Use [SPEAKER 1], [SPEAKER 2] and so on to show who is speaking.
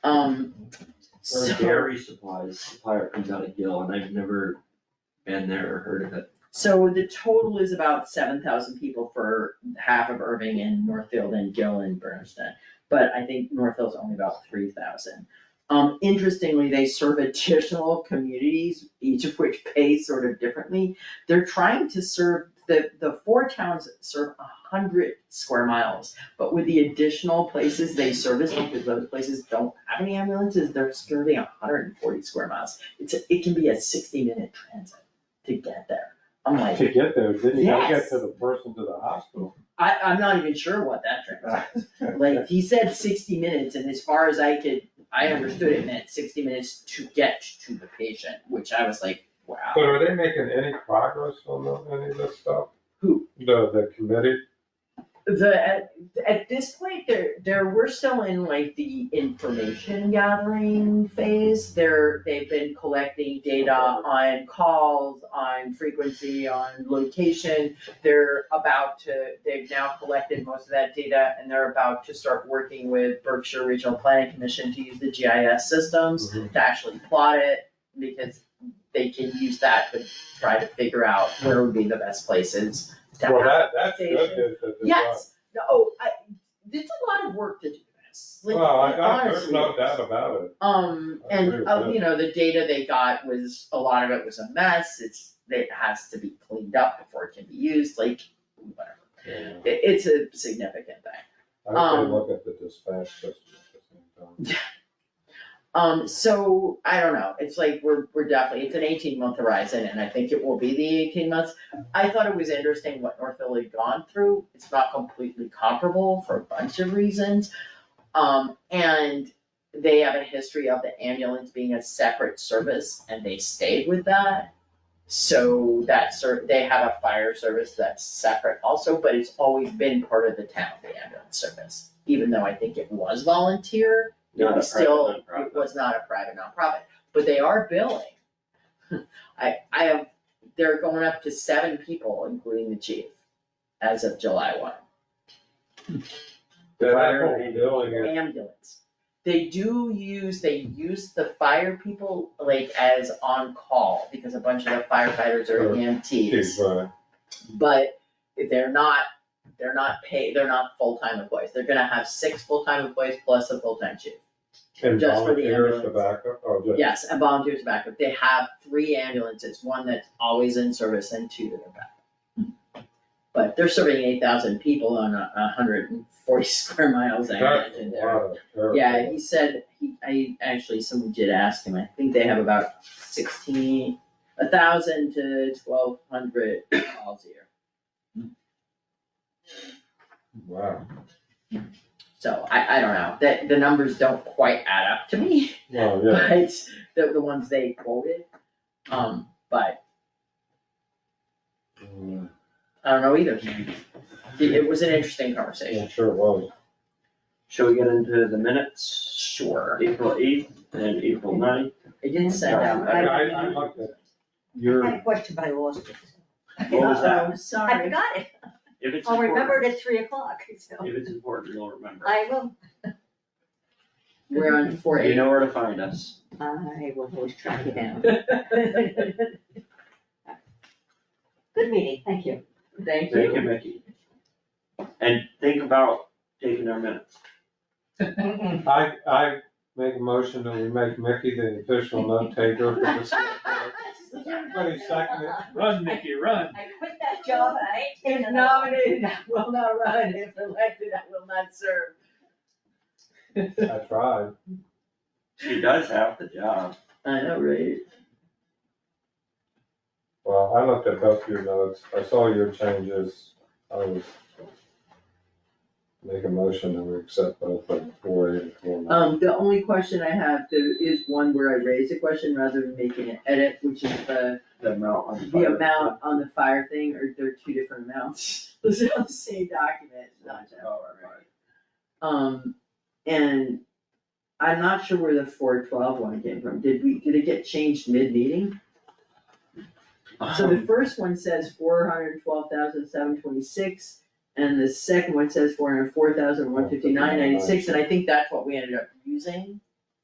[SPEAKER 1] Um,
[SPEAKER 2] Or
[SPEAKER 1] so,
[SPEAKER 2] dairy supplies, supplier comes out of Gill, and I've never been there or heard of it.
[SPEAKER 1] so the total is about seven thousand people for half of Irving and Northfield and Gill and Bernstein. But I think Northfield's only about three thousand. Um, interestingly, they serve additional communities, each of which pays sort of differently. They're trying to serve, the, the four towns serve a hundred square miles. But with the additional places they service, because those places don't have any ambulances, they're serving hundred and forty square miles. It's, a- it can be a sixty-minute transit to get there. I'm like,
[SPEAKER 3] To get there, then you gotta
[SPEAKER 1] Yes.
[SPEAKER 3] get to the person to the hospital.
[SPEAKER 1] I, I'm not even sure what that transit Like, he said sixty minutes, and as far as I could, I understood it meant sixty minutes to get to the patient, which I was like, wow.
[SPEAKER 3] But are they making any progress on the- any of this stuff?
[SPEAKER 1] Who?
[SPEAKER 3] The, the committee?
[SPEAKER 1] The, at, at this point, there, there, we're still in like the information gathering phase. They're, they've been collecting data on calls, on frequency, on location. They're about to, they've now collected most of that data, and they're about to start working with Berkshire Regional Planning Commission to use the GIS systems. to actually plot it, because they can use that to try to figure out where would be the best places to
[SPEAKER 3] Well,
[SPEAKER 1] have.
[SPEAKER 3] that, that's good, that- that- that-
[SPEAKER 1] Yes, no, oh, I, it's a lot of work to do this, like,
[SPEAKER 3] Well, I, I, there's
[SPEAKER 1] honestly.
[SPEAKER 3] no doubt about it.
[SPEAKER 1] Um,
[SPEAKER 3] I agree
[SPEAKER 1] and,
[SPEAKER 3] with
[SPEAKER 1] uh,
[SPEAKER 3] that.
[SPEAKER 1] you know, the data they got was, a lot of it was a mess, it's, it has to be cleaned up before it can be used, like, whatever.
[SPEAKER 3] Yeah.
[SPEAKER 1] It, it's a significant thing.
[SPEAKER 3] I would
[SPEAKER 1] Um,
[SPEAKER 3] say look at the dispatch system at the same time.
[SPEAKER 1] Um, so, I don't know, it's like, we're, we're definitely, it's an eighteen month horizon, and I think it will be the eighteen months. I thought it was interesting what North Philly had gone through, it's not completely comparable for a bunch of reasons. Um, and they have a history of the ambulance being a separate service, and they stayed with that. So that ser, they have a fire service that's separate also, but it's always been part of the town, the ambulance service, even though I think it was volunteer. It
[SPEAKER 2] Not a
[SPEAKER 1] was still,
[SPEAKER 2] private
[SPEAKER 1] it
[SPEAKER 2] nonprofit.
[SPEAKER 1] was not a private nonprofit, but they are billing. I, I have, they're going up to seven people, including the chief, as of July one,
[SPEAKER 3] That
[SPEAKER 2] Fire
[SPEAKER 3] whole
[SPEAKER 2] and-
[SPEAKER 3] building is-
[SPEAKER 1] ambulance. They do use, they use the fire people like as on call, because a bunch of the firefighters are
[SPEAKER 3] Sure.
[SPEAKER 1] EMTs.
[SPEAKER 3] is, uh,
[SPEAKER 1] but they're not, they're not paid, they're not full-time employees, they're gonna have six full-time employees plus a full-time chief.
[SPEAKER 3] and
[SPEAKER 1] Just for the
[SPEAKER 3] volunteers to
[SPEAKER 1] ambulance.
[SPEAKER 3] back up, or Oh, just.
[SPEAKER 1] Yes, and volunteers backup, they have three ambulances, one that's always in service and two that are backup. But they're serving eight thousand people on a a hundred and forty square miles, I
[SPEAKER 3] That's a
[SPEAKER 1] imagine there.
[SPEAKER 3] lot of territory.
[SPEAKER 1] Yeah, he said, he, I, actually, someone did ask him, I think they have about sixteen, a thousand to twelve hundred calls a year.
[SPEAKER 3] Wow.
[SPEAKER 1] So I, I don't know, that, the numbers don't quite add up to me.
[SPEAKER 3] Well, yeah.
[SPEAKER 1] but the, the ones they quoted. Um, but
[SPEAKER 3] Mm,
[SPEAKER 1] I don't know either. It, it was an interesting conversation.
[SPEAKER 3] I'm sure it was.
[SPEAKER 2] Shall we get into the minutes,
[SPEAKER 1] Sure.
[SPEAKER 2] April eighth and April ninth?
[SPEAKER 1] um, I didn't send out.
[SPEAKER 3] I, I, I looked at
[SPEAKER 4] I
[SPEAKER 3] your,
[SPEAKER 4] had a question, but I lost it. Oh.
[SPEAKER 2] What was that?
[SPEAKER 1] I'm
[SPEAKER 4] I
[SPEAKER 1] sorry.
[SPEAKER 4] forgot it.
[SPEAKER 2] If it's
[SPEAKER 4] I'll remember
[SPEAKER 2] important,
[SPEAKER 4] it at three o'clock, so
[SPEAKER 2] if it's important, you'll remember.
[SPEAKER 4] I will.
[SPEAKER 1] We're on four
[SPEAKER 2] You
[SPEAKER 1] eight.
[SPEAKER 2] know where to find us.
[SPEAKER 4] I will always track you down.
[SPEAKER 1] Thank
[SPEAKER 4] Good meeting, thank you.
[SPEAKER 2] Thank you,
[SPEAKER 1] you.
[SPEAKER 2] Mickey. And think about taking our minutes.
[SPEAKER 3] I, I make a motion that we make Mickey the official note taker for this. Everybody second it.
[SPEAKER 5] Run, Mickey, run.
[SPEAKER 4] I quit that job and I ain't taking
[SPEAKER 1] If
[SPEAKER 4] another one.
[SPEAKER 1] nominated, I will not run. If elected, I will not serve.
[SPEAKER 3] I tried.
[SPEAKER 2] She does half the job.
[SPEAKER 1] I know, right?
[SPEAKER 3] Well, I looked at both your notes. I saw your changes. I was make a motion that we accept both like four eight and four nine.
[SPEAKER 1] Um, the only question I have to, is one where I raise a question rather than making an edit, which is the
[SPEAKER 2] The amount on the.
[SPEAKER 1] the
[SPEAKER 2] fire.
[SPEAKER 1] amount on the fire thing, or they're two different amounts, those are on the same document, it's not that
[SPEAKER 2] Oh,
[SPEAKER 1] far,
[SPEAKER 2] right.
[SPEAKER 1] right? Um, and I'm not sure where the four twelve one came from, did we, did it get changed mid-meeting? So
[SPEAKER 2] Um.
[SPEAKER 1] the first one says four hundred twelve thousand seven twenty-six, and the second one says four hundred four thousand one fifty-nine ninety-six, and I think that's what we ended up using.